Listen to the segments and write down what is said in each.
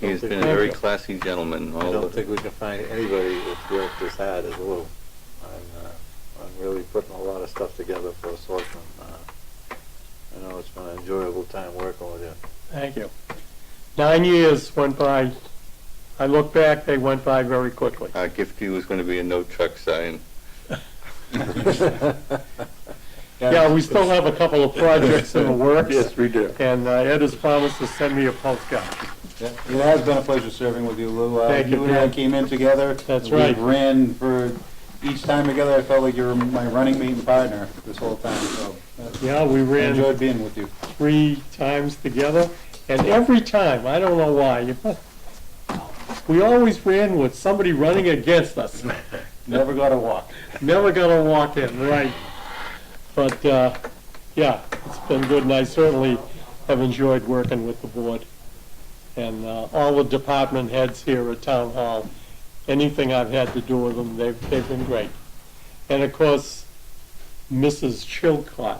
He's been a very classy gentleman. I all don't of- think we can find anybody that's worked as hard as Lou. I'm, uh, I'm really putting a lot of stuff together for Selectmen. Uh, I know it's been an enjoyable time working with you. Thank you. Nine years went by, I look back, they went by very quickly. Our gift to you is going to be a no truck sign. Yeah, we still have a couple of projects in the works. Yes, we do. And uh, Ed has promised to send me a postcard. Yeah, It has been a pleasure serving with you, Lou. Uh, Thank you, and I Ted. came in together. That's right. We ran for, each time together, I felt like you were my running mate and partner this whole time, so. uh, Yeah, we I ran enjoyed being with you. three times together, and every time, I don't know why, we always ran with somebody running against us. Never got a walk. Never gonna walk in, right. But, uh, yeah, it's been good, and I certainly have enjoyed working with the board. And, uh, all the department heads here at Town Hall, anything I've had to do with them, they've, they've been great. And of course, Mrs. Chilcott.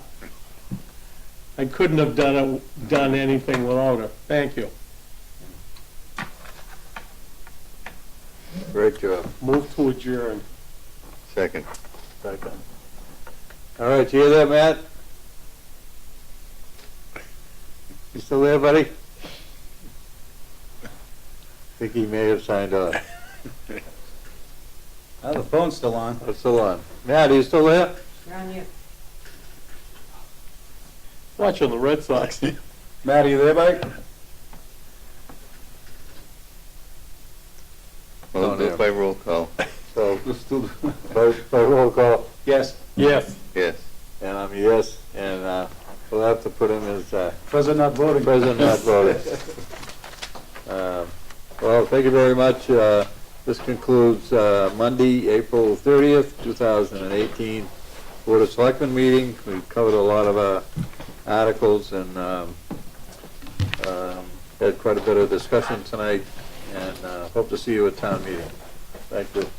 I couldn't have done it, done anything without her. Thank you. Great job. Move to adjourn. Second. Second. All right, you hear that, Matt? You still there, buddy? Think he may have signed off. Oh, the phone's still on. That's still on. Matt, are you still there? You're on mute. Watching the Red Sox. Matt, are you there, Mike? Oh, Well, do it by roll call. So, Let's do- by, by roll call, Yes, Yes. Yes. and I'm a yes, and, uh, we'll have to put him as, uh, present not voting. president not voting. Um, Well, thank you very much. Uh, this concludes, uh, Monday, April thirtieth, two thousand and eighteen, Board of Selectmen meeting. We've covered a lot of, uh, articles and, um, um, had quite a bit of discussion tonight, and, uh, hope to see you at town meeting. Thank you.